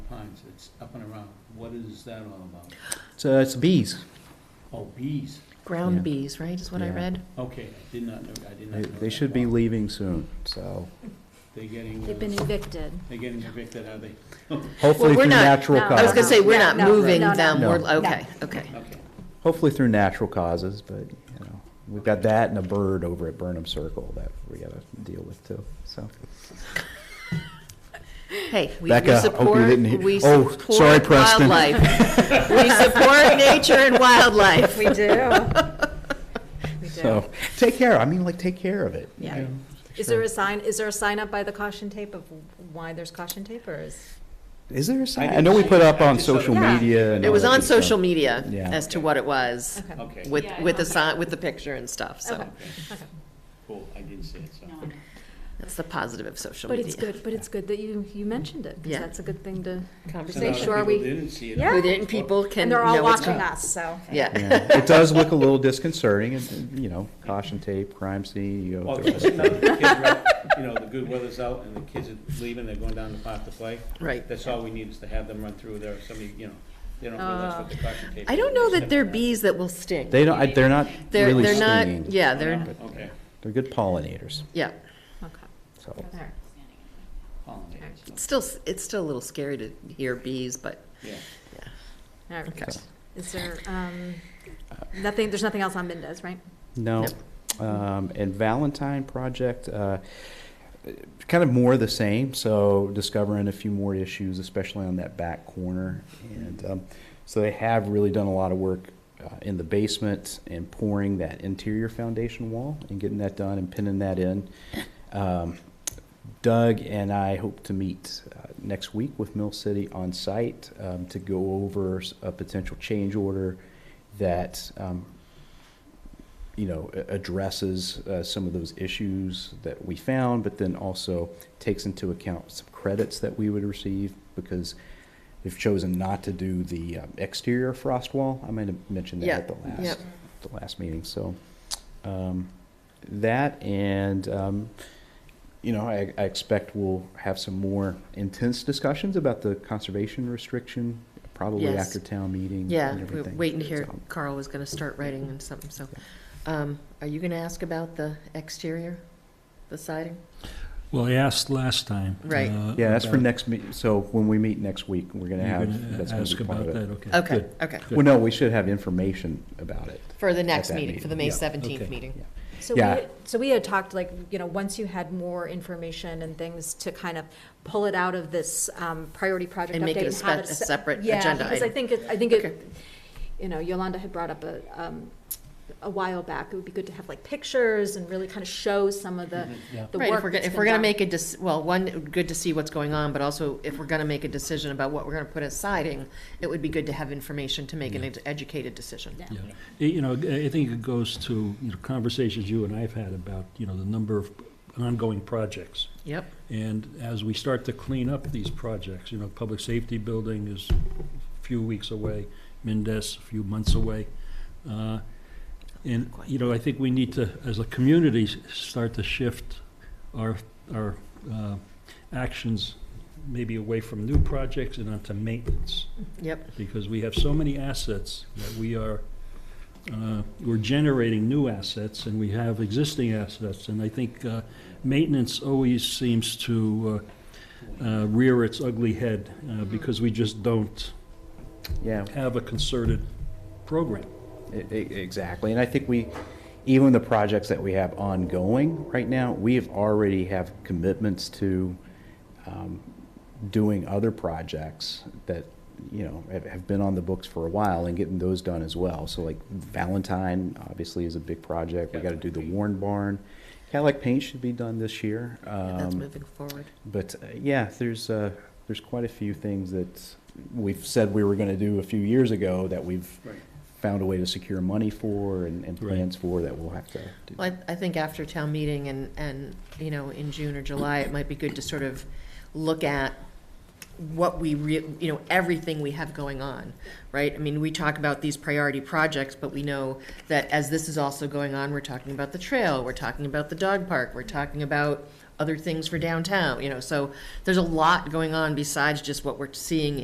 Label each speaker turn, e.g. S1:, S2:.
S1: times, it's up and around. What is that all about?
S2: So it's bees.
S1: Oh, bees.
S2: Yeah.
S3: Ground bees, right, is what I
S2: Yeah.
S3: read?
S1: Okay, I did not know, I did
S2: They,
S1: not know.
S2: they
S1: that.
S2: should be
S1: Wow.
S2: leaving soon, so
S1: They're getting,
S4: They've been
S1: uh,
S4: evicted.
S1: they're getting evicted, are they?
S2: hopefully
S3: we're
S2: through
S3: not-
S2: natural
S4: no,
S2: causes.
S3: I was gonna say, we're
S4: No,
S3: not
S4: no,
S3: moving
S4: no, no.
S3: them, we're,
S2: No.
S3: okay, okay.
S1: Okay.
S2: Hopefully through natural causes, but, you know, we've got that and a bird over at Burnham Circle that we gotta deal with too, so.
S3: Hey, we we
S2: Becca, hope you
S3: support,
S2: didn't hear-
S3: we
S2: Oh,
S3: support
S2: sorry, Preston.
S3: wildlife. We support nature and wildlife.
S4: We do. We do.
S2: So, take care, I mean, like, take care of it.
S4: Yeah. Is there a sign, is there a sign up by the caution tape of why there's caution tape or is?
S2: Is there a sign? I
S1: didn't
S2: know we
S1: see
S2: put
S1: it.
S2: up
S1: I
S2: on
S1: just saw
S2: social
S4: it. Yeah.
S2: media and
S3: It
S2: all
S3: was
S2: that
S3: on
S2: good stuff.
S3: social media
S2: Yeah.
S3: as to what it was,
S4: Okay.
S1: Okay,
S3: with,
S5: Yeah, I
S3: with the
S5: saw that.
S3: sign, with the picture and stuff, so.
S4: Okay, okay.
S1: cool, I didn't see it, so.
S5: No, no.
S3: That's the positive of social
S4: But
S3: media.
S4: it's good, but it's good that you, you mentioned it, because
S3: Yeah.
S4: that's a good thing to,
S1: So now
S4: Make
S1: the
S4: sure
S1: people
S4: we-
S1: Didn't see it.
S4: Yeah.
S3: With it, and people can
S4: and
S3: know
S4: they're all
S3: what's
S4: watching
S3: going-
S4: us, so.
S3: Yeah.
S2: Yeah. It does look a little disconcerting, and, and, you know, caution tape, crime scene, you know.
S1: Well,
S2: the
S1: it's
S2: rest of
S1: now
S2: it.
S1: that the kids are out, You know, the good weather's out and the kids are leaving, they're going down the park to play.
S3: Right.
S1: That's all we need is to have them run through there, somebody, you know, they don't realize what the caution tape.
S3: Uh, I
S1: is.
S3: don't know that they're
S1: Step
S3: bees that will sting.
S2: They don't, I- they're not
S3: They're-
S2: really
S3: they're not-
S2: stinging.
S3: Yeah,
S1: back.
S3: they're,
S1: Okay.
S2: They're good pollinators,
S3: yeah.
S4: Okay.
S2: so.
S4: All right.
S1: Oh, yeah, so,
S3: It's still, it's still a little scary to hear bees, but,
S1: Yeah.
S3: yeah.
S4: All right.
S3: Okay.
S4: Is there, um, nothing, there's nothing else on Mendez,
S2: Uh,
S4: right?
S2: No. Um, and Valentine Project, uh, kind of more of the same. So discovering a few more issues, especially on that back corner. And um, so they have really done a lot of work uh, in the basement and pouring that interior foundation wall and getting that done and pinning that in. Um, Doug and I hope to meet uh, next week with Mill City on site um, to go over s- a potential change order that um, you know, a- addresses uh, some of those issues that we found, but then also takes into account some credits that we would receive because they've chosen not to do the um, exterior frost wall. I might have mentioned that at the
S3: Yeah,
S2: last
S3: yep.
S2: the last meeting. So um, that and um, you know, I, I expect we'll have some more intense discussions about the conservation restriction probably
S3: Yes.
S2: after town meeting.
S3: Yeah,
S2: and
S3: we're
S2: everything.
S3: waiting to hear,
S2: So-
S3: Carl was gonna start writing and something, so. Um, are you gonna ask about the exterior, the siding?
S6: Well, I asked last time.
S3: Right.
S6: uh,
S2: Yeah, that's for
S6: about-
S2: next, me- so when we meet next week, we're going to
S6: You're
S2: have,
S6: gonna
S2: that's going to
S6: ask
S2: be part
S6: about
S2: of
S6: that,
S2: it.
S6: okay.
S3: Okay,
S6: good.
S3: okay,
S2: Well, no, we should have information about it.
S3: for the next
S2: that
S3: meeting,
S2: meeting,
S3: for the May
S2: yeah.
S3: seventeenth
S6: Okay.
S3: meeting.
S4: So
S2: Yeah.
S4: we, so we had talked like, you know, once you had more information and things to kind of pull it out of this um, priority project update.
S3: And make it a
S4: have
S3: spe- a
S4: se-
S3: separate
S4: Yeah,
S3: agenda
S4: because I
S3: item.
S4: think, it- I think
S3: Okay.
S4: it, you know, Yolanda had brought up a, um, a while back, it would be good to have like pictures and really kind of show some of the, the
S3: Right,
S4: work
S3: if we're, gonna-
S4: that's
S3: if
S4: been
S3: we're gonna
S4: done.
S3: make a, dec- well, one, good to see what's going on, but also if we're gonna make a decision about what we're gonna put as siding, it would be good to have information to make an ed- educated decision.
S4: Yeah.
S6: Yeah. Eh, You know, I I think it goes to, you know, conversations you and I have had about, you know, the number of ongoing projects.
S3: Yep,
S6: And as we start to clean up these projects, you know, public safety building is a few weeks away, Mendez a few months away. Uh, And, you know, I think we need to, as a community, s- start to shift our, our uh, actions maybe away from new projects and onto maintenance.
S3: yep,
S6: Because we have so many assets that we are, uh, we're generating new assets and we have existing assets. And I think uh, maintenance always seems to uh, uh, rear its ugly head uh, because we just don't
S2: Yeah,
S6: have a concerted program.
S2: e- e- exactly. And I think we, even the projects that we have ongoing right now, we have already have commitments to um, doing other projects that, you know, have- have been on the books for a while and getting those done as well. So like Valentine, obviously, is a big project. We got to do the Warren Barn. Cadillac Paint should be done this year.
S3: Yeah, that's
S2: Um,
S3: moving forward.
S2: But uh, yeah, there's uh, there's quite a few things that we've said we were going to do a few years ago that we've
S1: Right.
S2: found a way to secure money for and, and
S6: Right.
S2: plans for that we'll have to do.
S3: Well, I, I think after town meeting and, and, you know, in June or July, it might be good to sort of look at what we re, you know, everything we have going on, right? I mean, we talk about these priority projects, but we know that as this is also going on, we're talking about the trail, we're talking about the dog park, we're talking about other things for downtown, you know, so there's a lot going on besides just what we're seeing